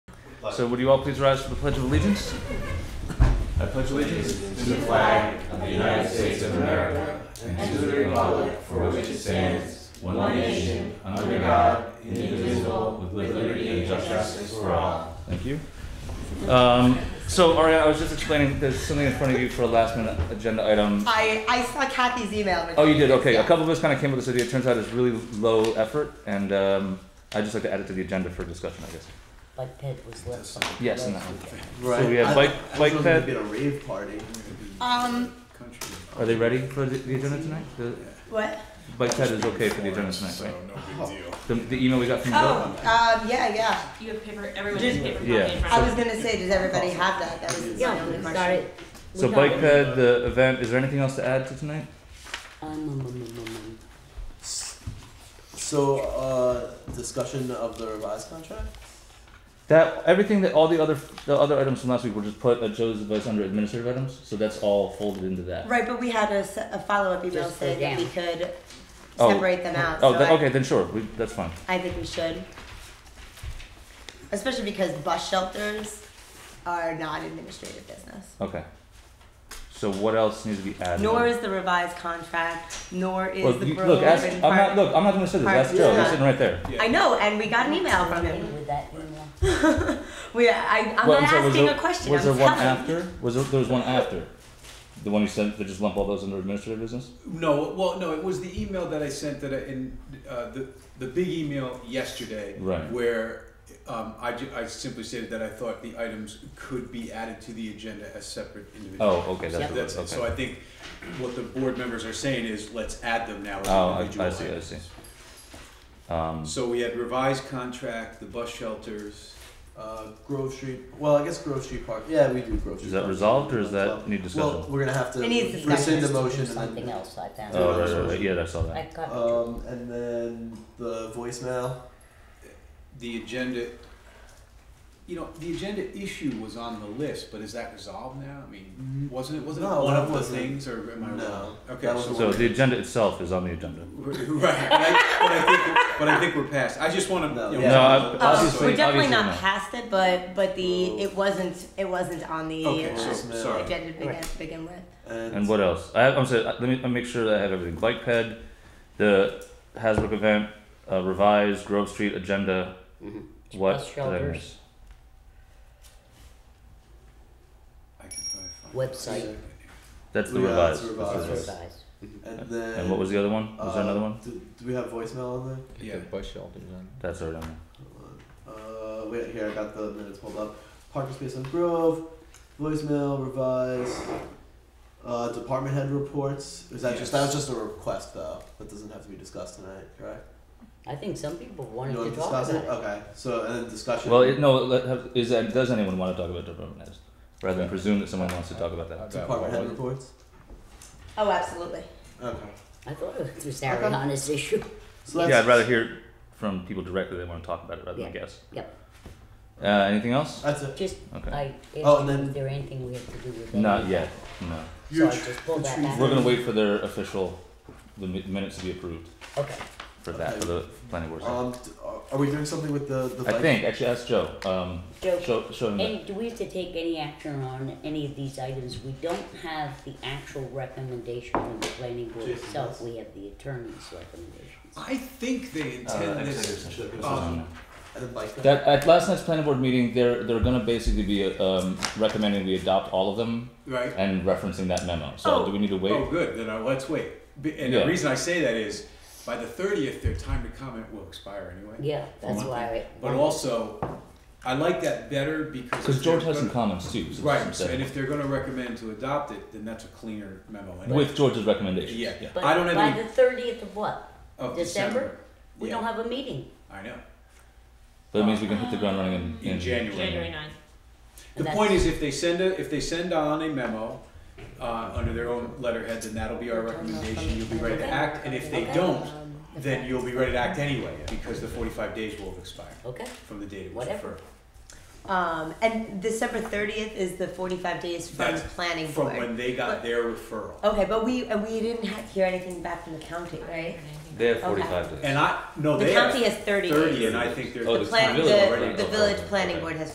So would you all please rise for the Pledge of Allegiance? I pledge allegiance to the flag of the United States of America and to the republic for which it stands, one nation, under God, indivisible, with liberty and justice for all. Thank you. Um, so Aria, I was just explaining, there's something in front of you for a last minute agenda item. I, I saw Kathy's email. Oh, you did, okay. A couple of us kind of came up with this idea. It turns out it's really low effort and, um, I'd just like to add it to the agenda for discussion, I guess. But Ted was left. Yes, and left that one. with it. So we have bike, bike There's ped. been a rave party. Um, Country. Are they ready for the, the agenda tonight? The what? bike ped is okay for the agenda tonight, right? Oh. The, the email we got from Oh, Bill? um, yeah, yeah. You have paper, everyone Did- has paper copy Yeah. in I front was of them. gonna say, does everybody have that? That was my Yeah, only we question. started. we So got bike it. ped, the event, is there anything else to add to tonight? Um, um, um, um, So, uh, discussion of the revised contract? That everything that all the other the other items from last week were just put at Joe's advice under administrative items, so that's all folded into that. Right, but we had a, s- a follow-up email Just saying that the we could Oh. separate them out. Oh, so that, I- okay, then sure, we, that's fine. I think we should. Especially because bus shelters are not administrative business. Okay. So what else needs to be added? Nor is the revised contract, nor is well, the you, Berlin look, ask, I'm not part- look, I'm not gonna say this. part- Ask Joe. He's yeah. sitting right there. I know, and we got an email from um, him. With that email. We, I, I'm Well, not sorry, was asking there- a question. Was I'm there one telling you. after? Was there, there was one after? The one you sent that just lump all those under administrative business? No, well, no, it was the email that I sent that I, in, uh, the, the big email yesterday. Right. Where, um, I ju- I simply stated that I thought the items could be added to the agenda as separate individuals. Oh, okay, that's Yep. what it That's was. it, Okay. so I think what the board members are saying is, let's add them now as Oh, I- I individual items. see, I see. Um, So we had revised contract, the bus shelters, Uh, Grove Street, well, I guess Grove Street Park, yeah, we do Grove Street. is that Park. resolved or is that Well, need Well, discussion? we're gonna have to It needs rescind the discussion. motion and Something then, else I found. oh, right, right, resolution. right. Yeah, I saw I that. copied um, and then the voicemail. the agenda. You know, the agenda issue was on the list, but is that resolved now? I mean, wasn't it, wasn't it Mm-hmm. No, one that of the wasn't- things, or am I wrong? No, Okay, that was so the So the agenda itself is on the agenda. Right, but I, but, I think, but I think we're past. I just want to. No. you know, No, I- Um, Obviously- we're definitely obviously not, not. past it, but but the it wasn't it wasn't on the Okay, so, uh, sorry. agenda to begin, Right. begin with. And what else? I have, I'm sorry, uh, let me, let me make sure that I have everything. Bike ped, the Hasbrook event, uh, revised Grove Street agenda. Mhm. What Bus did I shelters. miss? I can probably find Website. it. That's the Yeah, revised. that's the That's the it. revised. It's revised. revised. And then. And what was the other one? Was there uh, another one? Do, do we have voicemail on there? Yeah. That's already on there. Uh, wait, here, I got the minutes pulled up. Parking space on Grove, voicemail, revise, uh, department head reports. Is that just, that was Yes. just a request though, that doesn't have to be discussed tonight, correct? I think some people wanted You wanna to talk discuss about it? it. Okay, so, and then discussion. Well, it, no, let, have, is that, does anyone want to talk about department heads? Rather than presume that someone wants to talk about that. Department head reports? Oh, absolutely. Okay. I thought it was Ariana's issue. So that's. Yeah, I'd rather hear from people directly that want to talk about it rather than guess. Yep. Uh, anything else? That's it. Just, Okay. I Oh, asked and you then- if there anything we have to do with that. Not yet, no. So I just pulled that back. We're gonna wait for their official, the mi- minutes to be approved Okay, for that, for the planning board. Um, d- are- are we doing something with the, the I bike? think, actually, ask Joe, um, Joe, show, show him that. And do we have to take any action on any of these items? We don't have the actual recommendation from the planning board Jason itself, does. we have the attorney's recommendations. I think they Uh, intend this. Um, And then bike. That, at last night's planning board meeting, they're, they're gonna basically be, um, recommending we adopt all of them Right. and referencing that memo, so Oh. do we need to Oh, wait? good. Then I, let's wait. B- And Yeah. the reason I say that is, by the thirtieth, their time to comment will expire anyway. Yeah, that's One why thing. I. But also, I like that better because. Cause if they're George has some gonna- comments too. so Right. it's- So, and if they're going to recommend to adopt it, then that's a cleaner memo. anyway. With George's recommendations. Yeah. But I don't have by any. the thirtieth of what? of December? We Yeah. don't have a meeting. I know. But it means we can hit the ground running in, In January. January ninth. The That's- point is, if they send a, if they send on a memo, uh, under their own letterhead, then that'll be our recommendation, you'll be ready to act, and if they don't, Um, then you'll be ready to act anyway, because the forty-five days will have expired Okay, from the date it was Whatever. referred. Um, and December thirtieth is the forty-five days from That's planning From board. when they got their referral. okay, but we and we didn't ha- hear anything back from the county, right? They have 45 days. And I, no, The Oh, they county have has thirty. thirty, days. and I think they're. Oh, the The plan, village already the, the goes village over. planning Okay. board has